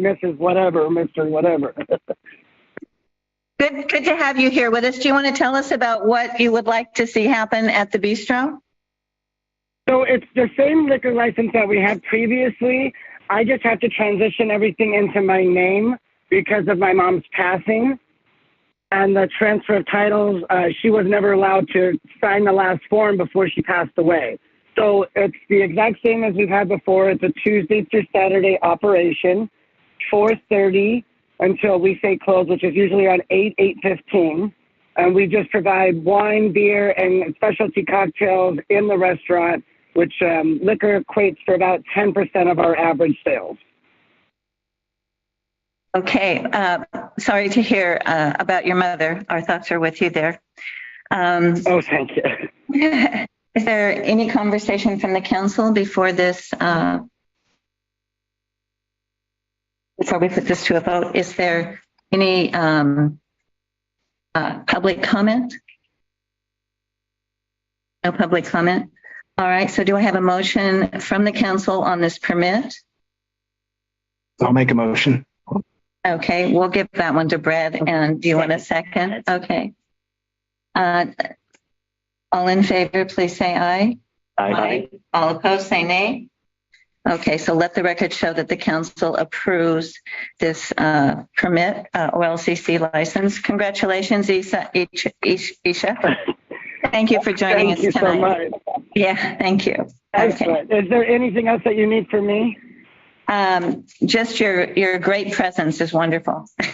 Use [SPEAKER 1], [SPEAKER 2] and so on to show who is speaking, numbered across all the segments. [SPEAKER 1] Mrs. Whatever, Mr. Whatever.
[SPEAKER 2] Good, good to have you here with us. Do you want to tell us about what you would like to see happen at the bistro?
[SPEAKER 1] so it's the same liquor license that we had previously. I just have to transition everything into my name because of my mom's passing and the transfer of titles. Uh, she was never allowed to sign the last form before she passed away. So it's the exact same as we've had before. It's a Tuesday through Saturday operation, 4:30 until we say close, which is usually around 8 8:15. and we just provide wine, beer, and specialty cocktails in the restaurant, which um, liquor equates for about 10% of our average sales.
[SPEAKER 2] Okay, uh, sorry to hear uh, about your mother. Our thoughts are with you there. Um,
[SPEAKER 1] Oh, thank you.
[SPEAKER 2] Is there any conversation from the council before this, uh, before we put this to a vote? Is there any um, uh, public comment? No public comment? All right, so do I have a motion from the council on this permit?
[SPEAKER 3] I'll make a motion.
[SPEAKER 2] Okay, we'll give that one to Brad. And do you want a second? Okay. Uh, All in favor, please say aye. All opposed, say nay. Okay, so let the record show that the council approves this uh, permit, uh, OLCC license. Congratulations, Isa, Ish- Ish- Isha. Thank you for joining us
[SPEAKER 1] thank you so
[SPEAKER 2] tonight.
[SPEAKER 1] much.
[SPEAKER 2] Yeah, thank you. Okay.
[SPEAKER 1] Excellent. Is there anything else that you need from me?
[SPEAKER 2] Um, Just your, your great presence is wonderful.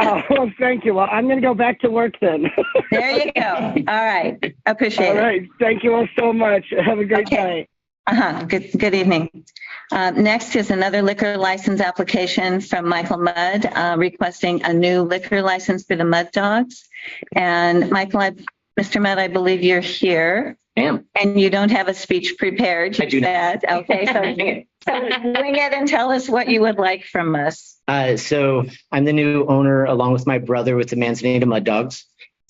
[SPEAKER 1] Oh, well, thank you. Well, I'm going to go back to work then.
[SPEAKER 2] There you go. All right,
[SPEAKER 1] All
[SPEAKER 2] appreciate it.
[SPEAKER 1] right. Thank you all so much. Have a great
[SPEAKER 2] Okay.
[SPEAKER 1] night.
[SPEAKER 2] Uh-huh, good, good evening. Uh, Next is another liquor license application from Michael Mudd uh, requesting a new liquor license for the Mud Dogs. And Michael, I, Mr. Mudd, I believe you're here
[SPEAKER 4] Am.
[SPEAKER 2] and you don't have a speech prepared.
[SPEAKER 4] I do not.
[SPEAKER 2] yet. Okay, so so wing it and tell us what you would like from us.
[SPEAKER 4] Uh, so I'm the new owner, along with my brother, with the Manzanita Mud Dogs.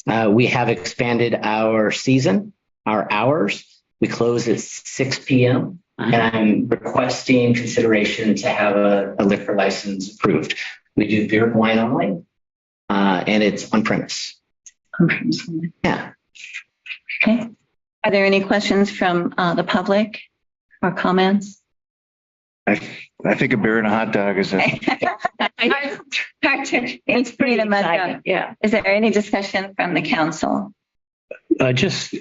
[SPEAKER 4] Uh, we have expanded our season, our hours. We close at 6 p.m. And
[SPEAKER 5] Uh-huh.
[SPEAKER 4] I'm requesting consideration to have a, a liquor license approved. We do beer and wine only, uh, and it's on premise. Yeah.
[SPEAKER 2] Okay. Are there any questions from uh, the public or comments?
[SPEAKER 6] I think a beer and a hot dog is a
[SPEAKER 2] It's pretty much done.
[SPEAKER 7] Yeah.
[SPEAKER 2] Is there any discussion from the council?
[SPEAKER 5] Uh, just,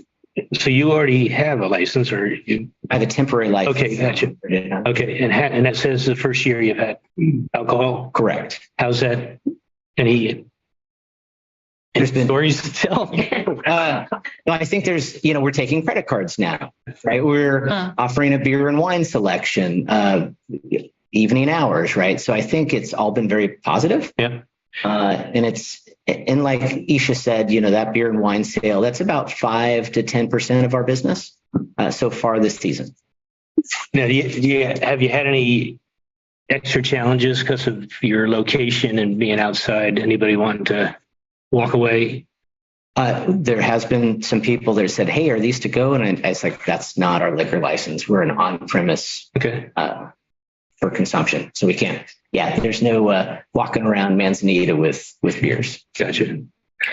[SPEAKER 5] so you already have a license or you,
[SPEAKER 4] I have a temporary license.
[SPEAKER 5] Okay, gotcha.
[SPEAKER 4] Yeah.
[SPEAKER 5] okay, and ha and that says the first year you've had alcohol.
[SPEAKER 4] Correct.
[SPEAKER 5] How's that? Any
[SPEAKER 4] There's been-
[SPEAKER 5] stories to tell?
[SPEAKER 4] Uh, no, I think there's, you know, we're taking credit cards now, right? We're
[SPEAKER 2] Huh.
[SPEAKER 4] offering a beer and wine selection, uh, evening hours, right? So I think it's all been very positive.
[SPEAKER 5] Yeah.
[SPEAKER 4] Uh, and it's, and like Isha said, you know, that beer and wine sale, that's about five to 10% of our business uh, so far this season.
[SPEAKER 5] Now, do you, do you, have you had any extra challenges because of your location and being outside? Anybody wanting to walk away?
[SPEAKER 4] Uh, there has been some people that said, Hey, are these to go? And I, I was like, that's not our liquor license. We're an on premise
[SPEAKER 5] Okay,
[SPEAKER 4] uh, for consumption. So we can't, yeah, there's no uh, walking around Manzanita with, with beers,
[SPEAKER 5] gotcha. All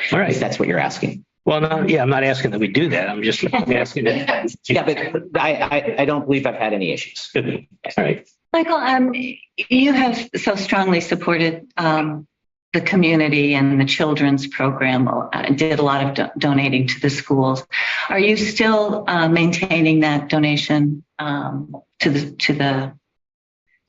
[SPEAKER 4] if
[SPEAKER 5] right.
[SPEAKER 4] that's what you're asking.
[SPEAKER 5] Well, no, yeah, I'm not asking that we do that. I'm just asking
[SPEAKER 4] Yeah,
[SPEAKER 5] that.
[SPEAKER 4] but I, I, I don't believe I've had any issues.
[SPEAKER 5] Good. All right.
[SPEAKER 2] Michael, um, you have so strongly supported, um, the community and the children's program, uh, did a lot of do- donating to the schools. Are you still, uh, maintaining that donation, um, to the, to the?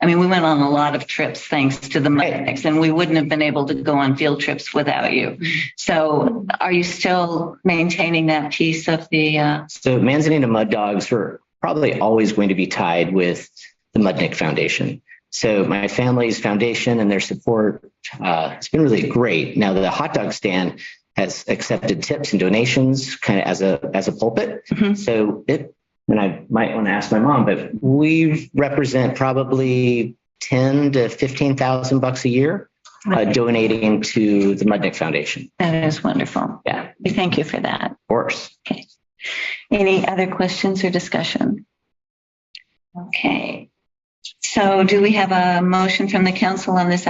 [SPEAKER 2] I mean, we went on a lot of trips thanks to the Mudex and we wouldn't have been able to go on field trips without you. So are you still maintaining that piece of the, uh,
[SPEAKER 4] So Manzanita Mud Dogs were probably always going to be tied with the Mudnick Foundation. So my family's foundation and their support, uh, it's been really great. Now the hot dog stand has accepted tips and donations kind of as a, as a pulpit.
[SPEAKER 2] Mhm.
[SPEAKER 4] So it, and I might want to ask my mom, but we represent probably 10 to 15,000 bucks a year uh, donating to the Mudnick Foundation.
[SPEAKER 2] that is wonderful.
[SPEAKER 4] Yeah,
[SPEAKER 2] We thank you for that.
[SPEAKER 4] of course.
[SPEAKER 2] Any other questions or discussion? Okay, So do we have a motion from the council on this